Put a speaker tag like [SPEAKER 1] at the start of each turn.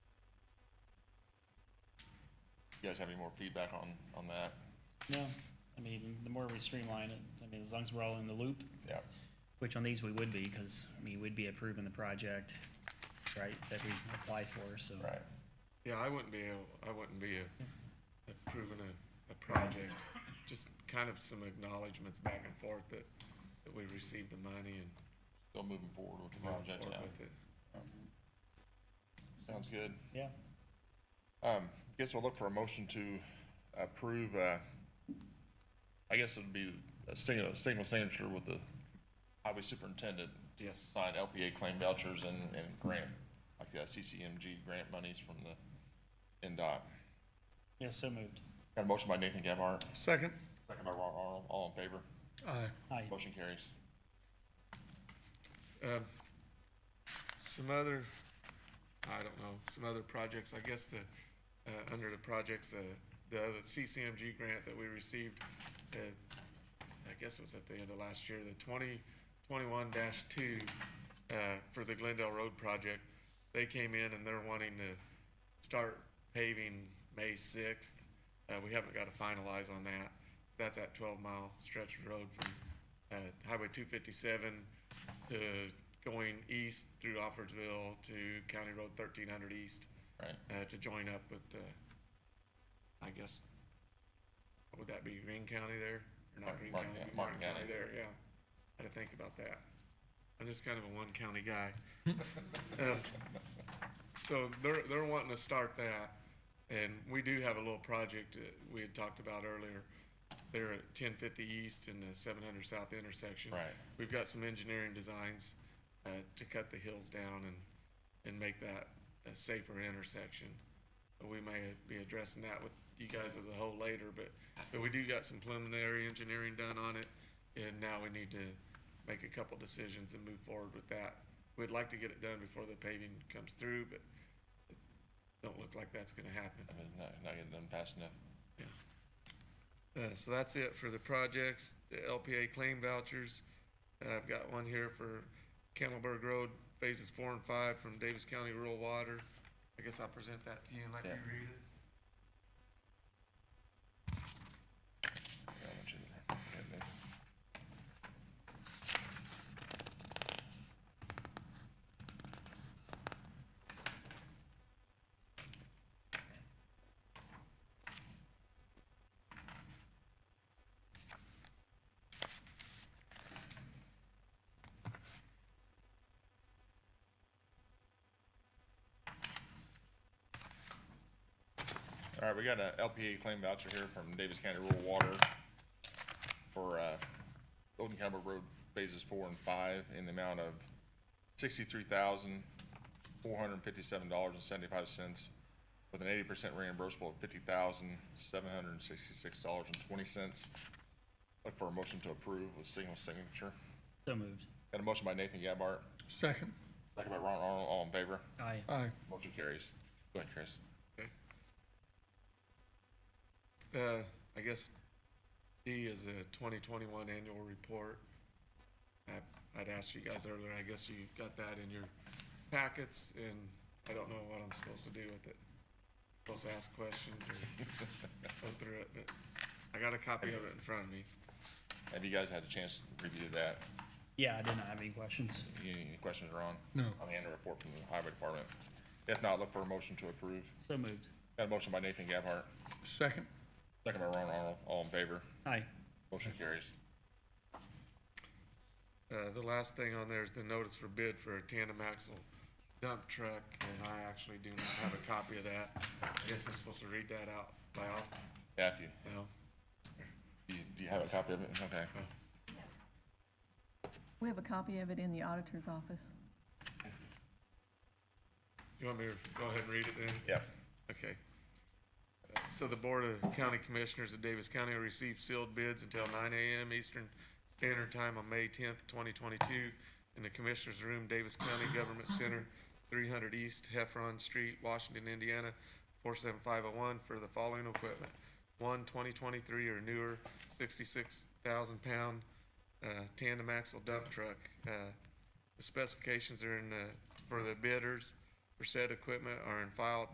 [SPEAKER 1] you guys have any more feedback on, on that?
[SPEAKER 2] No, I mean, the more we streamline it, I mean, as long as we're all in the loop,
[SPEAKER 1] Yeah.
[SPEAKER 2] which on these we would be, because, I mean, we'd be approving the project, right, that we apply for, so.
[SPEAKER 1] Right.
[SPEAKER 3] Yeah, I wouldn't be, a- I wouldn't be a- approving a, a project, just kind of some acknowledgements back and forth that, that we received the money and
[SPEAKER 1] Still moving forward with the
[SPEAKER 3] moved
[SPEAKER 1] project
[SPEAKER 3] forward
[SPEAKER 1] now.
[SPEAKER 3] with it.
[SPEAKER 1] Sounds good.
[SPEAKER 2] Yeah,
[SPEAKER 1] Um, guess we'll look for a motion to approve, uh, I guess it'd be a single, a single signature with the highway superintendent,
[SPEAKER 3] Yes,
[SPEAKER 1] sign LPA claim vouchers and, and grant, like uh, the CCMG grant monies from the NDOT.
[SPEAKER 2] yeah, so moved.
[SPEAKER 1] Got a motion by Nathan Gabhart,
[SPEAKER 4] Second.
[SPEAKER 1] second by Ron Arnold, all in favor?
[SPEAKER 4] Aye.
[SPEAKER 2] Aye.
[SPEAKER 1] Motion carries.
[SPEAKER 3] um, some other, I don't know, some other projects, I guess the, uh, under the projects, uh, the other CCMG grant that we received, uh, I guess it was at the end of last year, the twenty twenty-one dash two, uh, for the Glendale Road project. They came in and they're wanting to start paving May sixth. Uh, we haven't got to finalize on that. That's that twelve mile stretch of road from, uh, Highway two fifty-seven to going east through Offordsville to County Road thirteen hundred east
[SPEAKER 1] Right,
[SPEAKER 3] uh, to join up with, uh, I guess, would that be Green County there? Or not
[SPEAKER 1] Martin-
[SPEAKER 3] Green County,
[SPEAKER 1] Martin
[SPEAKER 3] it'd be
[SPEAKER 1] County- Martin
[SPEAKER 3] Martin County
[SPEAKER 1] County.
[SPEAKER 3] there, yeah. I had to think about that. I'm just kind of a one county guy. Um, So they're, they're wanting to start that, and we do have a little project that we had talked about earlier. They're at ten fifty east and the seven hundred south intersection.
[SPEAKER 1] Right.
[SPEAKER 3] We've got some engineering designs, uh, to cut the hills down and, and make that a safer intersection. So we may be addressing that with you guys as a whole later, but, but we do got some preliminary engineering done on it. And now we need to make a couple decisions and move forward with that. We'd like to get it done before the paving comes through, but it don't look like that's gonna happen.
[SPEAKER 1] I mean, not, not getting done fast enough.
[SPEAKER 3] Uh, so that's it for the projects, the LPA claim vouchers. Uh, I've got one here for Campbellburg Road, phases four and five from Davis County Rural Water. I guess I'll present that to you and let you
[SPEAKER 1] Yeah.
[SPEAKER 3] read it.
[SPEAKER 1] Yeah, I want you to- okay, thanks. All right, we got a LPA claim voucher here from Davis County Rural Water for, uh, Golden Cowboy Road phases four and five in the amount of sixty-three thousand, four hundred and fifty-seven dollars and seventy-five cents with an eighty percent reimbursable of fifty thousand, seven hundred and sixty-six dollars and twenty cents. Look for a motion to approve with single signature.
[SPEAKER 2] So moved.
[SPEAKER 1] Got a motion by Nathan Gabhart,
[SPEAKER 4] Second.
[SPEAKER 1] second by Ron Arnold, all in favor?
[SPEAKER 2] Aye.
[SPEAKER 4] Aye.
[SPEAKER 1] Motion carries. Go ahead, Chris.
[SPEAKER 3] Uh, I guess D is a twenty twenty-one annual report. I, I'd asked you guys earlier, I guess you got that in your packets, and I don't know what I'm supposed to do with it. Supposed to ask questions or go through it, but I got a copy of it in front of me.
[SPEAKER 1] Have you guys had a chance to review that?
[SPEAKER 2] Yeah, I did not have any questions.
[SPEAKER 1] Any any questions, Ron?
[SPEAKER 4] No.
[SPEAKER 1] On the annual report from the highway department. If not, look for a motion to approve.
[SPEAKER 2] So moved.
[SPEAKER 1] Got a motion by Nathan Gabhart,
[SPEAKER 4] Second.
[SPEAKER 1] second by Ron Arnold, all in favor.
[SPEAKER 2] Aye.
[SPEAKER 1] Motion carries.
[SPEAKER 3] Uh, the last thing on there is the notice for bid for a tandem axle dump truck, and I actually do not have a copy of that. I guess I'm supposed to read that out loud,
[SPEAKER 1] Yeah, if you,
[SPEAKER 3] no?
[SPEAKER 1] you, do you have a copy of it? Okay.
[SPEAKER 3] Uh,
[SPEAKER 5] We have a copy of it in the auditor's office.
[SPEAKER 3] You want me to go ahead and read it then?
[SPEAKER 1] Yeah.
[SPEAKER 3] Okay. Uh, So the Board of County Commissioners of Davis County will receive sealed bids until nine AM Eastern Standard Time on May tenth, twenty twenty-two in the Commissioners Room, Davis County Government Center, three hundred East Heffron Street, Washington, Indiana, four seven five oh one for the following equipment. One 2023 or newer, sixty-six thousand pound, uh, tandem axle dump truck. Uh, the specifications are in the, for the bidders for said equipment are in file at